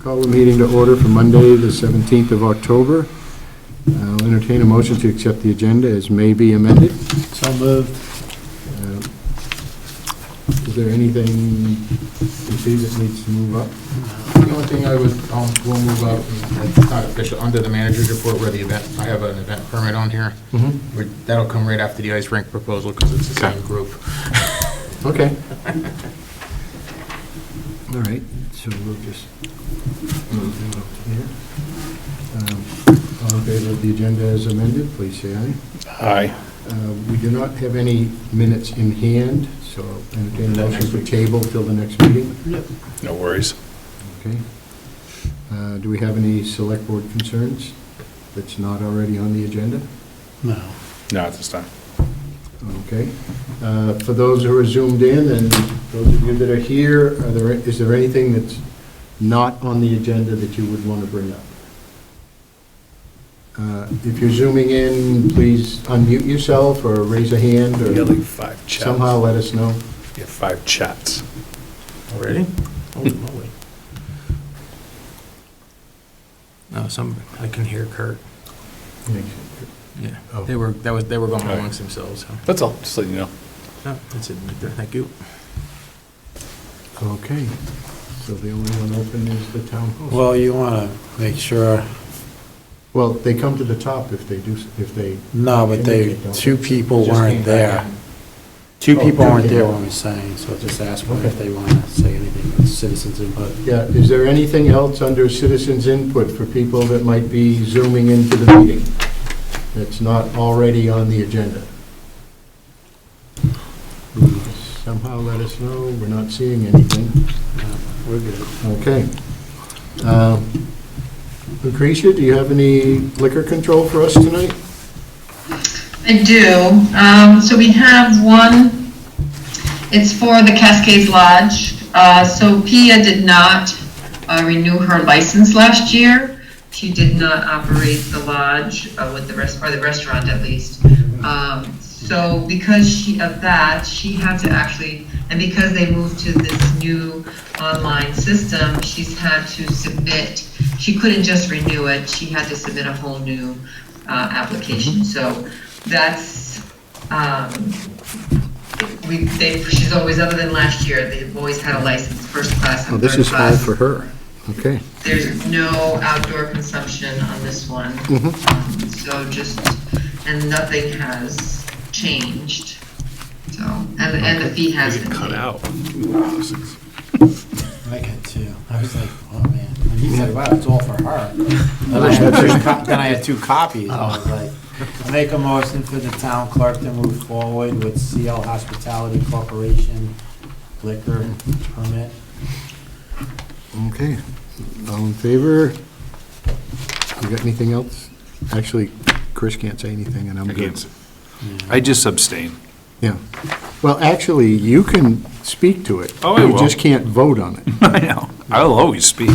Call the meeting to order for Monday, the 17th of October. I'll entertain a motion to accept the agenda as may be amended. So moved. Uh, Is there anything you see that needs to move up? The only thing I would, um, will move up, and it's not official, under the manager's report where the event, I have an event permit on here. Mm-hmm. We- That'll come right after the ice rink proposal, because it's the same group. Okay. All right, so we'll just move that up to here. Um, All in favor of the agenda as amended, please say aye. Aye. Uh, We do not have any minutes in hand, so entertain a motion for table till the next meeting. No worries. Okay. Uh, Do we have any select board concerns that's not already on the agenda? No. Not at this time. Okay. Uh, For those who are zoomed in and those of you that are here, are there, is there anything that's not on the agenda that you would want to bring up? Uh, If you're zooming in, please unmute yourself or raise a hand We got like or five chats. somehow let us know. We have five chats. Already? Holy moly. No, some, I can hear Kurt. Yeah, Oh. they were, that was, they were going Alright. amongst themselves, so, That's all, just let you know. no, that's it, right there. thank you. Okay, so the only one open is the town hall. Well, you want to make sure, Well, they come to the top if they do, if they, no, but they, two people Just weren't came back there. in. Two Oh, people two weren't there people. when we sang, so just ask them if they want to say anything about citizens input. yeah, is there anything else under citizens' input for people that might be zooming into the meeting that's not already on the agenda? Somehow let us know, we're not seeing anything. No, We're good. Okay. Um, Lucretia, do you have any liquor control for us tonight? I do. Um, so we have one, it's for the Cascades Lodge. Uh, so Pia did not uh, renew her license last year. She did not operate the lodge uh, with the rest, or the restaurant at least. Um, so because she, of that, she had to actually, and because they moved to this new online system, she's had to submit, she couldn't just renew it, she had to submit a whole new uh, application. So that's, um, we, they, she's always, other than last year, they've always had a license, first class Oh, and third class. her. Okay. There's no outdoor consumption on this one. Um, So just, and nothing has changed, so, and, and the fee has been paid. I got two. I was like, oh, man. And he said, wow, it's all for her. Then I had two co- then I had two copies. I was like, I make a motion for the town clerk to move forward with CL Hospitality Corporation liquor permit. Okay, all in favor? You got anything else? Actually, Chris can't say anything, and I'm I good. can't- I just abstain. Yeah. Well, actually, you can speak to it. Oh, I You will. just can't vote on it. I know. I'll always speak.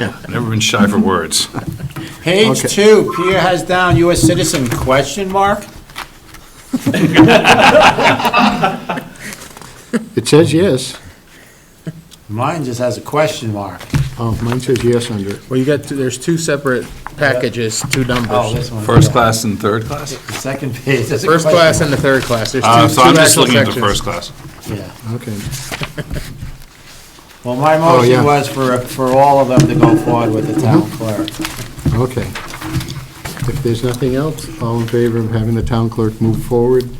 I've never been shy for words. Page Okay. two, Peter has down U.S. citizen, question mark? It says yes. Mine just has a question mark. Oh, mine says yes under it. Well, you got, there's two separate packages, two Oh, numbers, this one. First class and third class? The second page has a question. the third class, there's Uh, So I'm just looking at the first class. Yeah. Okay. Well, my Oh, yeah. motion was for, for all of them to go forward with the town Mm-hmm. clerk. Okay. If there's nothing else, all in favor of having the town clerk move forward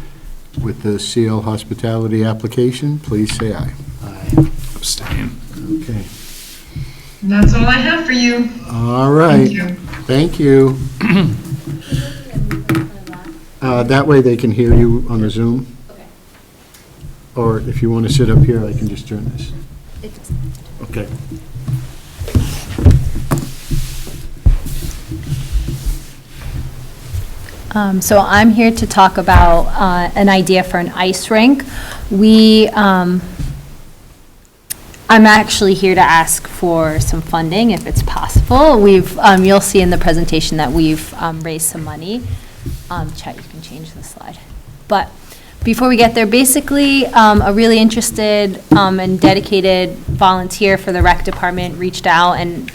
with the CL Hospitality application, please say aye. Aye. Abstain. Okay. And that's all I have for you. All right. Thank you. Thank you. Uh, That way they can hear you on the Zoom. Or if you want to sit up here, I can just turn this. It does Okay. Um, So I'm here to talk about uh, an idea for an ice rink. We, um, I'm actually here to ask for some funding if it's possible. We've, um, you'll see in the presentation that we've um, raised some money. Um, Chet, you can change the slide. But before we get there, basically, um, a really interested um, and dedicated volunteer for the rec department reached out and